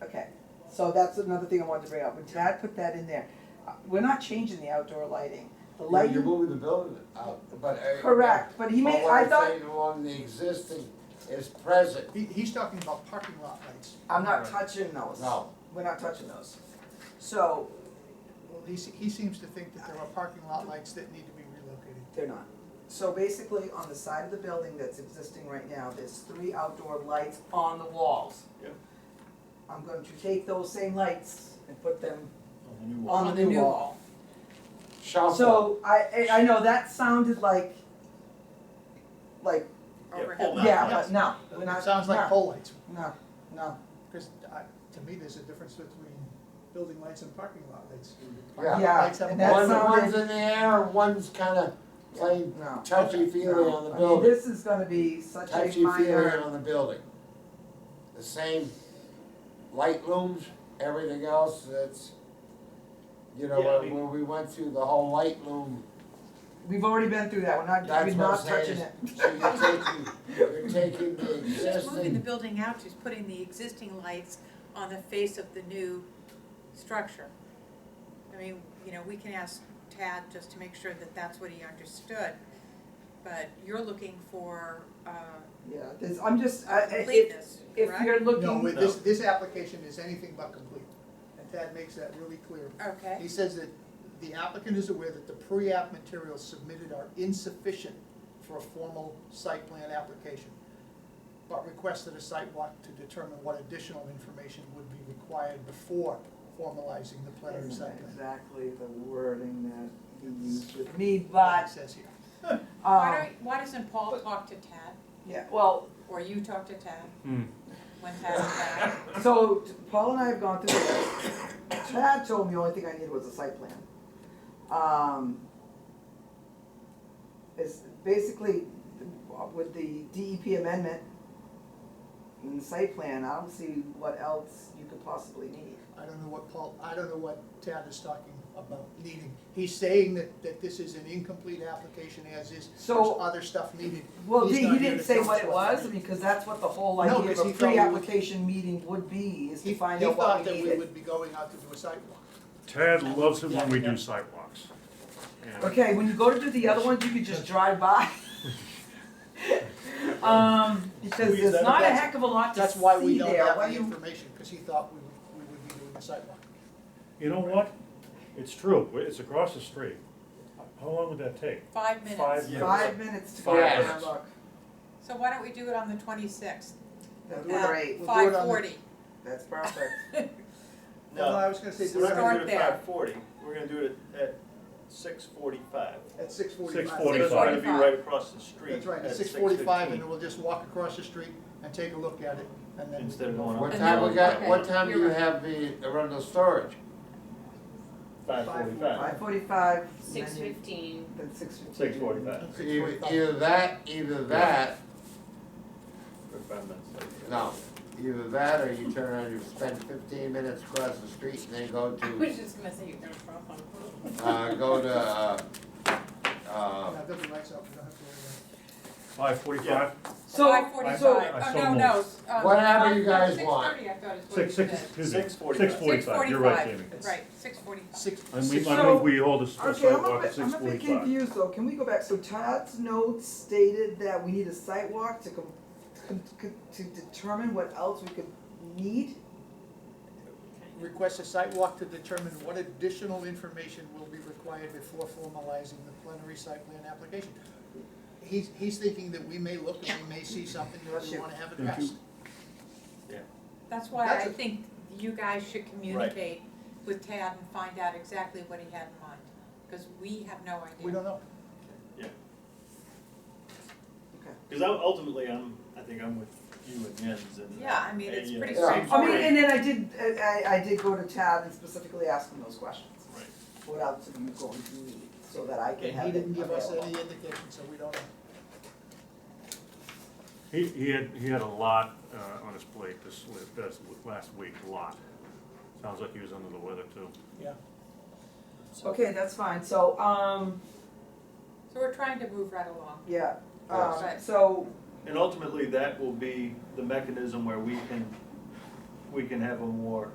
So that's another thing I wanted to bring up, when Tad put that in there, uh, we're not changing the outdoor lighting. The You're, you're lighting, moving the building out, but. I- correct, but he But made, what I I'm thought, saying on the existing is present, He, he's talking about parking lot lights. I'm not touching those. no. We're not touching those. So, He, se- he seems to think that there are parking lot lights that need to be relocated. They're not. So basically, on the side of the building that's existing right now, there's three outdoor lights on the walls. Yeah. I'm going to take those same lights and put them Oh, the new wall. on the new wall. Shelter, So I, I I know that sounded like, like, Yeah, overhead pull that. light. yeah, yes. but no, we're not, It sounds like no, pole lights, No, no, because to me, there's a difference between building lights and parking lot lights. yeah. Yeah, Lights have and a that One, bulb. one's sounded- in the air, one's kinda playing no. touchy feely on the I mean, building, this is uh, gonna be such a touchy feely minor, on the building. The same light looms, everything else, that's, you know, Yeah, I when mean- when we went through the whole light loom, we've already been through that, we're not, we're that's what not I'm touching saying. it. is- So you're taking, you're taking the She's moving the existing, building out, she's putting the existing lights on the face of the new structure. I mean, you know, we can ask Tad just to make sure that that's what he understood, but you're looking for, uh, Yeah, this, I'm just, I, I- if, completeness, if correct? you're looking. No, with this, this application is anything but complete, and Tad makes that really clear. Okay, He says that the applicant is aware that the pre-app materials submitted are insufficient for a formal site plan application, but requested a site walk to determine what additional information would be required before formalizing the plan or Isn't site plan. exactly the wording that you used with me, What but, he says here. why um, don't, why doesn't Paul talk to Tad, yeah, well, or you talk to Tad Hmm. when Tad's back? so t- Paul and I have gone through this. Chad told me the only thing I needed was a site plan. Um, it's basically with the DEP amendment and the site plan, I don't see what else you could possibly need. I don't know what Paul, I don't know what Tad is talking about needing. He's saying that, that this is an incomplete application as is, there's So- other stuff needed. Well, He's he, not he here didn't to say tell what us it what was, we need. because that's what the whole No, idea of 'cause he a thought we would- pre-application meeting would be, is He, to he find out what thought we that needed. we would be going out to do a sidewalk. Tad loves it when we do sidewalks. And Okay, when you go to do the other ones, you could just drive by. Um, because Squeeze there's that- not a that's- heck of a lot to That's why we see don't there, have why the you, information, because he thought we would, we would be doing a sidewalk. You know what? It's true, it's across the street. How long would that take? Five minutes. Five Yeah. five minutes to go Five around and minutes. look. So why don't we do it on the twenty-sixth? That's We'll do it on- great, we'll do Five it on the- forty. that's perfect. Well, No, I was gonna say, we're not do gonna do Start it there. at five forty, we're gonna do it at, at six forty-five. it at six forty-five. Six It's gonna be 45. right across the street That's right, at at six six fifteen. forty-five, and then we'll just walk across the street and take a look at it, and then. Instead of going what up And time we then- got, okay, what time do you're you right. have the, around the storage? five forty-five. Five forty-five, and Six then you, fifteen, then six fifteen. Six forty-five. Six Either forty-five. either that, either that, Five minutes later. no, either that or you turn around, you spend fifteen minutes across the street and then go I to, was just gonna say you're gonna drop on. uh, go to, uh, uh, Yeah, they'll be lights up, we don't have to worry about it. Five forty-five? So, Five so- forty-five, I oh, so no, no, s- um. Whatever you guys want. Six thirty, I thought is what you said. Six, six, excuse me. Six forty-five. Six forty-five, you're right, Jamie. 6:45. Right, six forty-five. Six, I six, move, I move we hold a a Okay, I'm a sidewalk at bit, six I'm a bit forty-five. confused though, can we go back, so Todd's notes stated that we need a sidewalk to com, com, com- to determine what else we could need? request a site walk to determine what additional information will be required before formalizing the plenary site plan application. He's, he's thinking that we may look and we may see something that we wanna have addressed. That's why That's I a- think you guys should communicate with Tad and find out exactly what he had in mind, because we have no idea. We don't know. Because ultimately, I'm, I think I'm with you and Jens and. uh, Yeah, I mean, it's Yeah. pretty Yeah. I straightforward. mean, and then I did, I, I- I did go to Tad and specifically ask him those questions. Right. What else are you going to need, so that I can And he have it didn't give us available. any indication, so we don't know. He, he had, he had a lot, uh, on his plate this, li- this last week, a lot. Sounds like he was under the weather too. Okay, that's fine, so, um, So we're trying to move right along. yeah, um, Yes. so, And ultimately, that will be the mechanism where we can, we can have a more